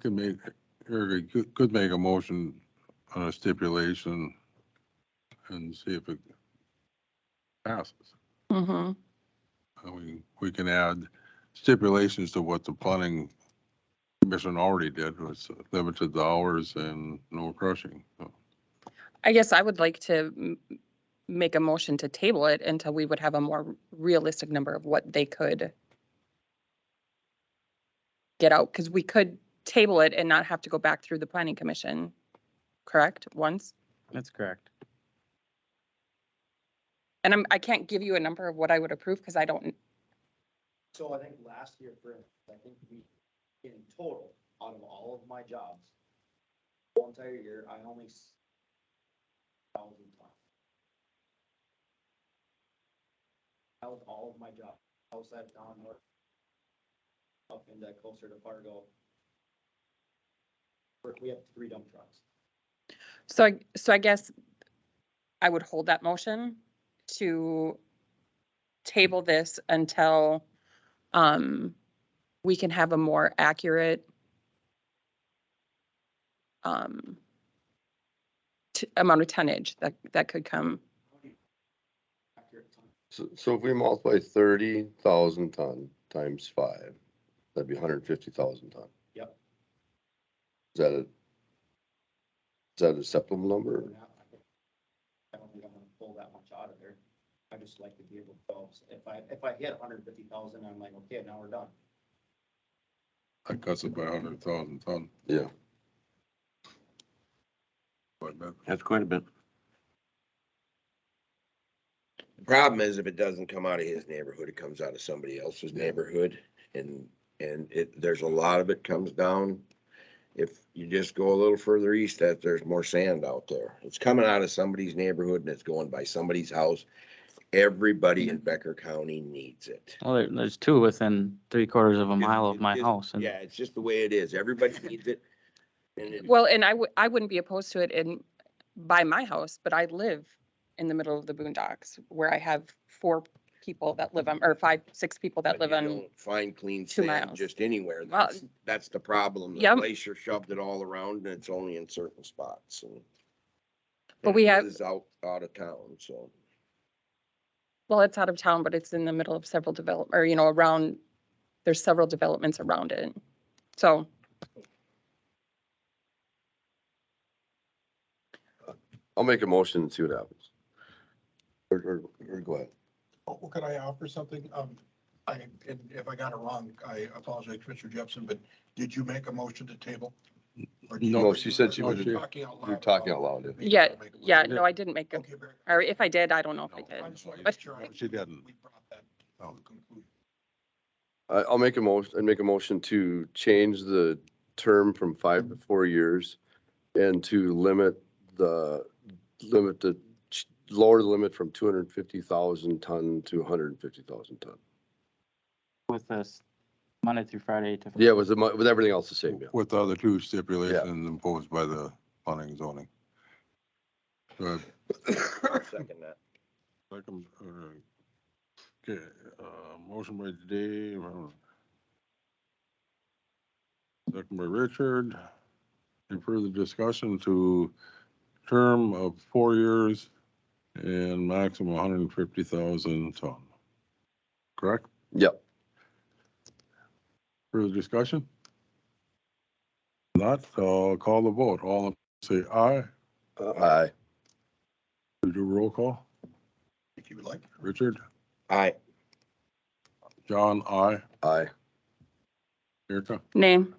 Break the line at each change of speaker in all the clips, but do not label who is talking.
could make, Erica you could- could make a motion on a stipulation and see if it passes.
Mm-hmm.
I mean, we can add stipulations to what the planning commission already did, was limited the hours and no crushing. so.
I guess I would like to m- make a motion to table it until we would have a more realistic number of what they could get out, because we could table it and not have to go back through the planning commission, correct, once?
That's correct.
And I'm, I can't give you a number of what I would approve, because I don't,
So I think last year, for, instance, I think we, in total, out of all of my jobs, whole entire year, I only s- thousand times. That was all of my job, outside of down north, up in that closer to Fargo. We're- We have three dump trucks.
so, I so I guess I would hold that motion to table this until um, we can have a more accurate um, t- amount of tonnage that, that could come.
How many Accurate time.
So, so if we multiply thirty thousand ton times five, that'd be hundred and fifty thousand ton.
Yep.
Is that a, is that a acceptable number?
We're not- I think- I don't think I'm gonna pull that much out of there. I just like to be able to, go. if I, if I hit hundred fifty thousand, I'm like, okay, now we're done.
That cuts it by a hundred thousand ton,
Yeah,
but that,
That's quite a bit.
The Problem is if it doesn't come out of his neighborhood, it comes out of somebody else's neighborhood and, and it, there's a lot of it comes down. If you just go a little further east, that there's more sand out there. It's coming out of somebody's neighborhood and it's going by somebody's house. Everybody in Becker County needs it.
Well, there, there's two within three quarters of a mile of
It
my
is-
house and
Yeah, it's just the way it is. Everybody needs it. And it-
Well, and I would, I wouldn't be opposed to it in, by my house, but I live in the middle of the boondocks where I have four people that live on, or five, six people that
but
live
you
on.
don't Find clean
two
sand
miles.
just anywhere.
Well,
That's, that's the problem. The
Yep.
glacier shoved it all around and it's only in certain spots and.
But
and
we
it
have-
Is out, out of town, so.
Well, it's out of town, but it's in the middle of several develop, or, you know, around, there's several developments around it. So
I'll make a motion and see what happens. Or, or, or go ahead.
Oh, Well, could I offer something? Um, I, and if I got it wrong, I apologize, Commissioner Jepson, but did you make a motion to table? Or did you-
No,
she said she
Or you're
was-
Talking out loud.
You're talking out loud. yeah.
Yeah, yeah, no, I didn't make, a-
Okay, very.
or if I did, I don't know if I
No.
did.
I just wanted to
But-
make sure I-
She didn't.
We brought that to a conclusion.
I, I'll make a motion, I'd make a motion to change the term from five to four years and to limit the, limit the, ch- lower the limit from two hundred and fifty thousand ton to hundred and fifty thousand ton.
with this Monday through Friday to.
Yeah, with the, mo- with everything else the same, yeah.
with the other two stipulations imposed by the planning and zoning. So
I'll Second that.
Second, uh, okay, uh, motion by Dave. uh, Second by Richard. Any further discussion to term of four years and maximum one hundred and fifty thousand ton? Correct?
Yep.
Further discussion? Not, uh, call the vote. All in- say aye.
Aye.
We Do roll call.
If you would like.
Richard,
Aye.
John, aye.
Aye.
Erica?
Name.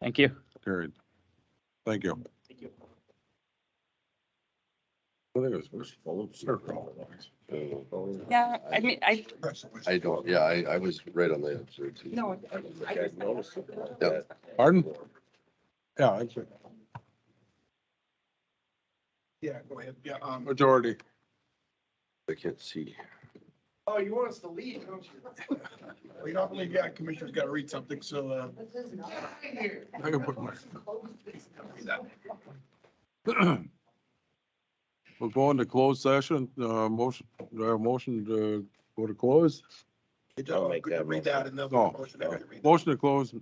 Thank you.
Carried. Thank you.
Thank you.
I think it was-
oh,
Yeah, I mean, I,
press it with-
I don't, yeah, I, I was right on the answer. too.
no. I
Guys
just-
noticed
Yeah.
that.
Pardon? Yeah, I think
Yeah, go ahead. Yeah, um,
majority.
I can't see.
Oh, you want us to leave, don't you?
we don't believe, yeah, Commissioner's got to read something, so, uh,
I can put my- We're going to closed session, uh, motion, do I have a motion to go to close?
it
I'll
doesn't,
make that
read that and then.
No.
Motion after you read that.
Motion to close